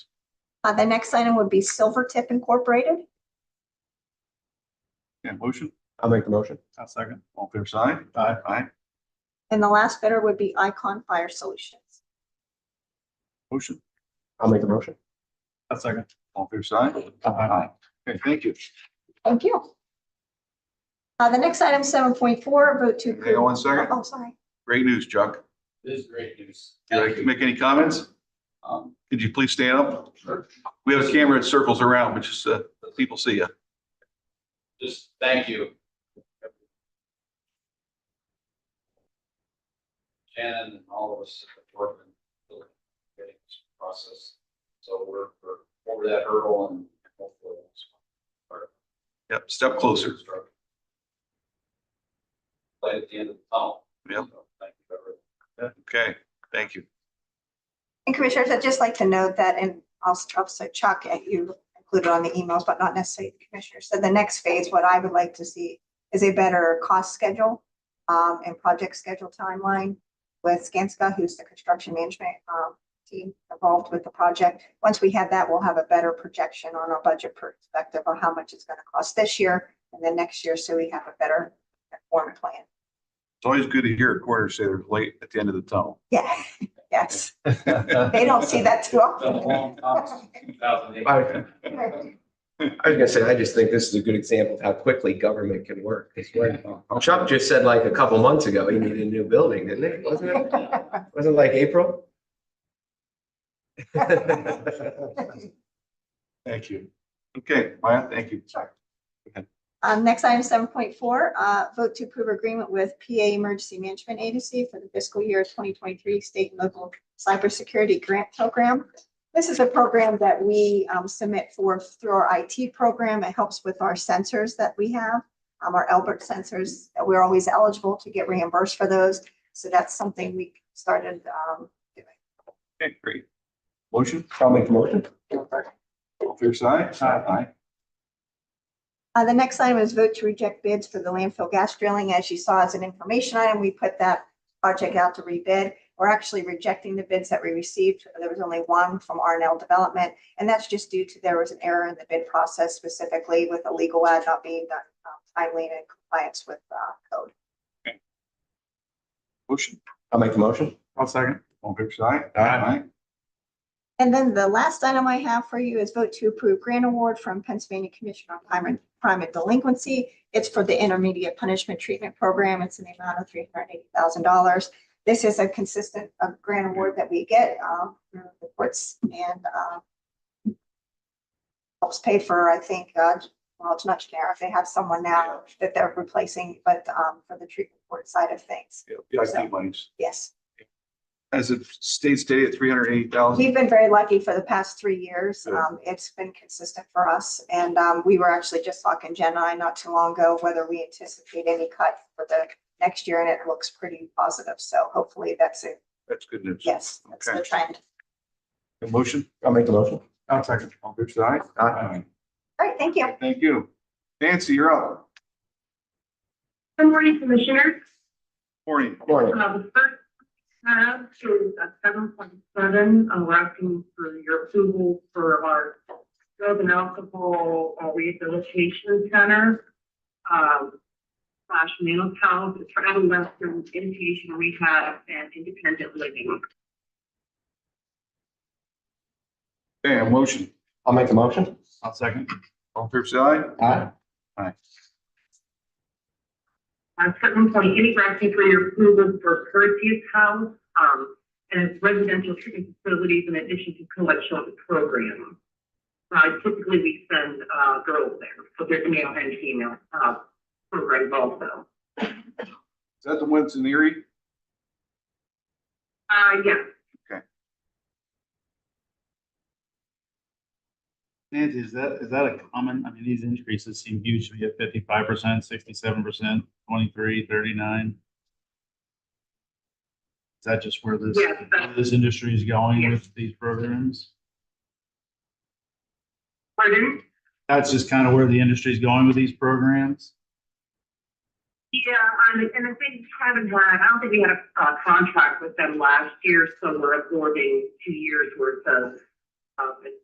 Uh, the next item would be Silver Tip Incorporated. Yeah, motion, I'll make the motion. I'll second. All fair side? Aye. Aye. And the last bidder would be Icon Fire Solutions. Motion, I'll make the motion. I'll second. All fair side? Uh, Aye. Okay, thank you. Thank you. Uh, the next item, seven point four, vote to. Hang on one second. Oh, sorry. Great news, Chuck. This is great news. Would you like to make any comments? Um, Could you please stand up? We have a camera that circles around, but just, uh, people see you. Just thank you. Shannon and all of us at the board and really getting this process. So we're, we're over that hurdle and hopefully. it's part of Yep, step closer. construction. Light at the end of the tunnel. Yep. So Thank you, everyone. Okay, thank you. And Commissioners, I'd just like to note that, and also also Chuck, uh, you included on the emails, but not necessarily the Commissioners. So the next phase, what I would like to see is a better cost schedule um, and project schedule timeline with Skanska, who's the construction management um, team involved with the project. Once we have that, we'll have a better projection on our budget perspective on how much it's going to cost this year and then next year, so we have a better form plan. It's always good to hear a quarter say they're late at the end of the tunnel. Yeah, yes. They don't see that too It's been a often. long time since 2008. I I was gonna say, I just think this is a good example of how quickly government can work. It's like- Chuck just said like a couple months ago, he needed a new building, didn't he? Wasn't it, wasn't it like April? Thank you. Okay, Maya, thank you. Um, next item, seven point four, uh, vote to approve agreement with PA Emergency Management Agency for the fiscal year twenty twenty-three state and local cybersecurity grant program. This is a program that we, um, submit for through our IT program. It helps with our sensors that we have. Um, our Elbert sensors, we're always eligible to get reimbursed for those. So that's something we started, um, Okay, great. Motion, I'll make the motion. all fair side? Aye. Uh, the next item is vote to reject bids for the landfill gas drilling. As you saw as an information item, we put that project out to rebid. We're actually rejecting the bids that we received. There was only one from R and L Development, and that's just due to there was an error in the bid process specifically with a legal ad not being done um, timely and in compliance with, uh, code. Motion, I'll make the motion. I'll second. All fair side? Aye. And then the last item I have for you is vote to approve grant award from Pennsylvania Commission on Crime and, Crime and Delinquency. It's for the Intermediate Punishment Treatment Program. It's in the amount of three hundred eighty thousand dollars. This is a consistent, uh grant award that we get, um, through the courts and, uh, helps pay for, I think, uh, well, it's not generic. They have someone now that they're replacing, but, um, for the treatment court side of things. Yeah, IP monies. Yes. As it states today at three hundred eighty thousand. We've been very lucky for the past three years. Good. Um, it's been consistent for us. And, um, we were actually just talking, Jen and I, not too long ago, whether we anticipate any cut for the next year and it looks pretty positive. So hopefully that's it. That's good news. Yes, that's the Okay. trend. A Motion? I'll make the motion. I'll second. All fair side? Aye. All right, thank you. Thank you. Nancy, you're up. Good morning, Commissioner. Morning. Morning. Uh, The first tab is at seven point seven, uh, asking for your approval for our drug and alcohol uh, rehabilitation center. um, Slash mental health, it's for adolescent inpatient rehab and independent living. Okay, a motion. I'll make the motion. I'll second. All fair side? Aye. Uh, seven point eight, we're asking for your approval for Perseus House, um, and its residential treatment facilities in addition to co-ed shelter program. Uh, typically we send, uh, girls there, so there's male and female, uh, programs also. Is that the ones in Erie? Uh, yeah, Nancy, is that, is that a common, I mean, these increases seem huge to me at fifty-five percent, sixty-seven percent, twenty-three, thirty-nine. Is that just where this, Yeah, that's- this industry is going with these programs? pardon? That's just kind of where the industry is going with these programs? Yeah, um, and I think we haven't had, I don't think we had a, uh contract with them last year, so we're absorbing two years worth of, of